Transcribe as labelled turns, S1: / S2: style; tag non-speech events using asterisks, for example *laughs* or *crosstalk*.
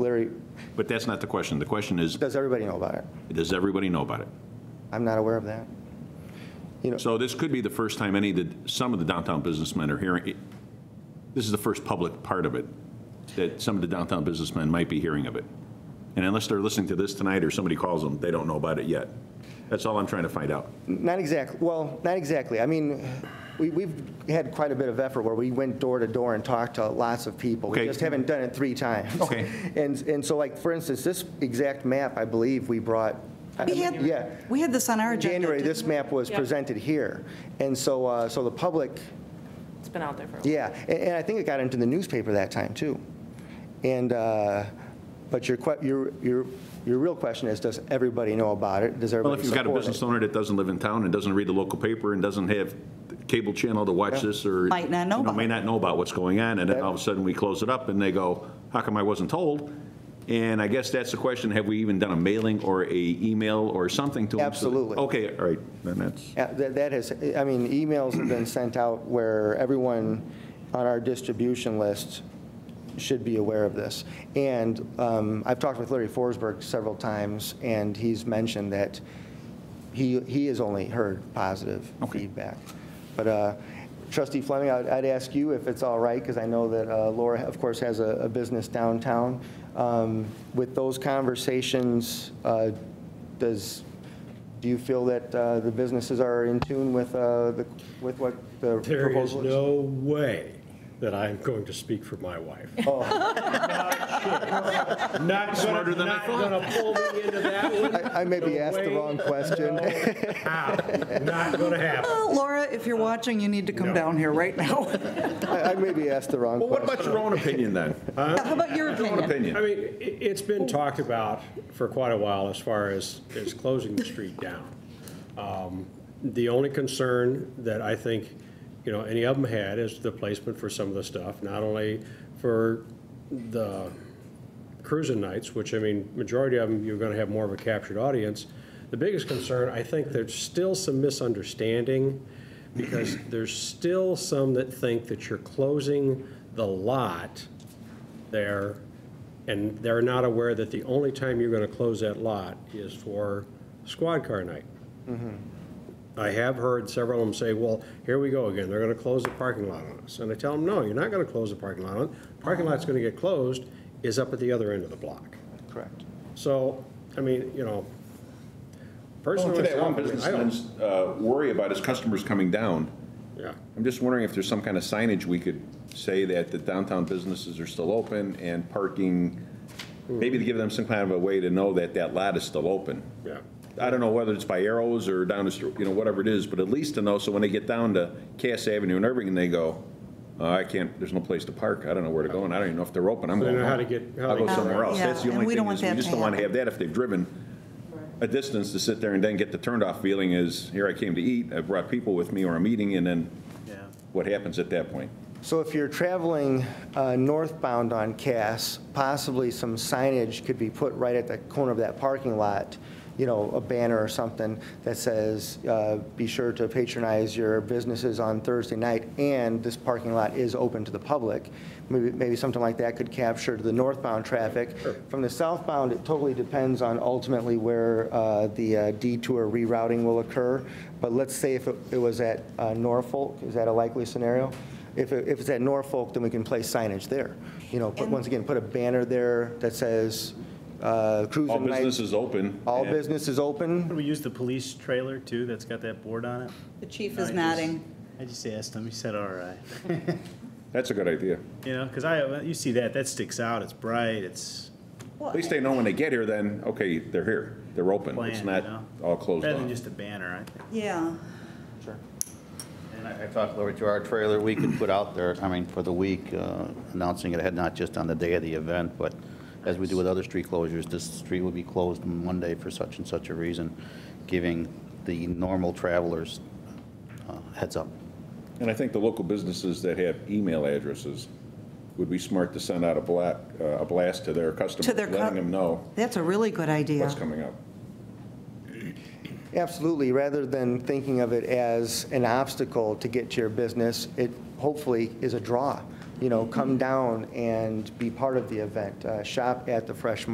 S1: Larry,
S2: But that's not the question. The question is,
S1: does everybody know about it?
S2: does everybody know about it?
S1: I'm not aware of that. You know,
S2: So this could be the first time any, of the some of the downtown businessmen are hearing, this is the first public part of it, that some of the downtown businessmen might be hearing of it. And unless they're listening to this tonight or somebody calls them, they don't know about it yet. That's all I'm trying to find out.
S1: not exactly, well, not exactly. I mean, we, we've had quite a bit of effort where we went door to door and talked to lots of people. We
S2: Okay.
S1: just haven't done it three times.
S2: Okay.
S1: *laughs* And, and so like, for instance, this exact map, I believe, we brought. I-
S3: We had-
S1: Yeah.
S3: We had this on our
S1: In
S3: agenda.
S1: January, this
S3: didn't we?
S1: map was presented here. And so, uh, so the public,
S4: It's been out there for a while.
S1: yeah, and, and I think it got into the newspaper that time, too. And, uh, but your, que- your, your, your real question is, does everybody know about it? Does
S2: Well,
S1: everybody
S2: if you've got a
S1: support
S2: business
S1: it?
S2: owner that doesn't live in town and doesn't read the local paper and doesn't have the cable channel to watch this or.
S3: Might not know
S2: you
S3: about
S2: May
S3: it.
S2: not know about what's going on, and then
S1: Yeah.
S2: all of a sudden we close it up and they go, how come I wasn't told? And I guess that's the question, have we even done a mailing or a email or something to them? so that-
S1: Absolutely.
S2: Okay, all right, then that's,
S1: Yeah, That that has, I mean, emails have been sent out where everyone on our distribution list should be aware of this. And um, I've talked with Larry Forsberg several times, and he's mentioned that he, he has only heard positive
S2: Okay.
S1: feedback. But uh, trustee Fleming, I'd I'd ask you if it's all right, because I know that uh, Laura, of course, has a a business downtown. Um, With those conversations, uh, does, do you feel that uh, the businesses are in tune with, uh, the with what the
S5: There is
S1: proposal is?
S5: no way that I'm going to speak for my wife.
S1: Oh. *laughs*
S5: Not
S2: Smarter
S5: gonna,
S2: than I
S5: not gonna pull me into that one.
S1: I I maybe
S5: *laughs* No
S1: asked the
S5: way.
S1: wrong question.
S5: No, how? Not gonna happen.
S3: Well, Laura, if
S1: Uh,
S3: you're watching, you need to come down here right now.
S1: *laughs* *laughs* I I maybe asked the wrong
S2: well, what
S1: question.
S2: about your own opinion
S5: *laughs*
S2: then?
S3: How about your
S2: Your own
S3: opinion?
S2: opinion.
S5: I mean, i- it's been talked about for quite a while as far as, as closing the street down. Um, The only concern that I think, you know, any of them had is the placement for some of the stuff, not only for the cruising nights, which, I mean, majority of them, you're gonna have more of a captured audience. The biggest concern, I think there's still some misunderstanding, because there's still some that think that you're closing the lot there, and they're not aware that the only time you're gonna close that lot is for squad car night. I have heard several of them say, well, here we go again, they're gonna close the parking lot on us. And I tell them, no, you're not gonna close the parking lot on, it. parking lot's gonna get closed is up at the other end of the block.
S1: Correct.
S5: So, I mean, you know, personally,
S2: For that
S5: I
S2: one
S5: don't- I don't,
S2: businessman's uh, worry about his customers coming down,
S5: yeah.
S2: I'm just wondering if there's some kind of signage we could say that the downtown businesses are still open and parking, maybe to give them some kind of a way to know that that lot is still open.
S5: Yeah.
S2: I don't know whether it's by arrows or down the, str- you know, whatever it is, but at least to know, so when they get down to Cass Avenue and Irving, and they go, "Uh, I can't, there's no place to park, I don't know where to go, and I don't even know if they're open, I'm
S5: They
S2: going
S5: don't know how
S2: home.
S5: to get- how
S2: I'll
S5: to
S2: go
S5: get
S2: somewhere
S5: around.
S2: else.
S3: Yeah,
S2: That's the
S3: and
S2: only
S3: we
S2: thing,
S3: don't want
S2: is we
S3: that
S2: just
S3: to
S2: don't want to have
S3: happen.
S2: that if they've driven a distance to sit there and then get the turnoff feeling is, here I came to eat, I brought people with me or a meeting, and then what happens at that point?
S1: So if you're traveling uh, northbound on Cass, possibly some signage could be put right at the corner of that parking lot, you know, a banner or something that says, uh, "Be sure to patronize your businesses on Thursday night, and this parking lot is open to the public." Maybe maybe something like that could capture the northbound traffic. From the southbound, it totally depends on ultimately where uh, the uh, detour rerouting will occur, but let's say if it- it was at uh, Norfolk, is that a likely scenario? If, it- if it's at Norfolk, then we can place signage there. You know, put, once again, put a banner there that says uh,
S2: All
S1: cruising
S2: business
S1: night.
S2: is open.
S1: All business is
S6: Can
S1: open.
S6: we use the police trailer too, that's got that board on it?
S3: The chief
S6: I
S3: is
S6: just-
S3: nodding.
S6: I just asked him, he said, all right. *laughs*
S2: That's a good idea.
S6: You know, because I, you see that, that sticks out, it's bright, it's
S2: At least they know when they get here, then, okay, they're here, they're open.
S6: planned,
S2: It's
S6: you
S2: not
S6: know?
S2: all closed
S6: Better than
S2: off.
S6: just a banner, I think.
S3: Yeah.
S7: And I I talked, Lori, to our trailer, we could put out there, I mean, for the week, uh, announcing it ahead, not just on the day of the event, but as we do with other street closures, this street will be closed Monday for such and such a reason, giving the normal travelers uh, heads up.
S2: And I think the local businesses that have email addresses would be smart to send out a bla, uh, a blast to their customers,
S3: To their cu-
S2: letting them know
S3: That's a really good idea.
S2: what's coming up.
S1: Absolutely, rather than thinking of it as an obstacle to get to your business, it hopefully is a draw you know, come down and be part of the event. Uh, Shop at the Fresh Market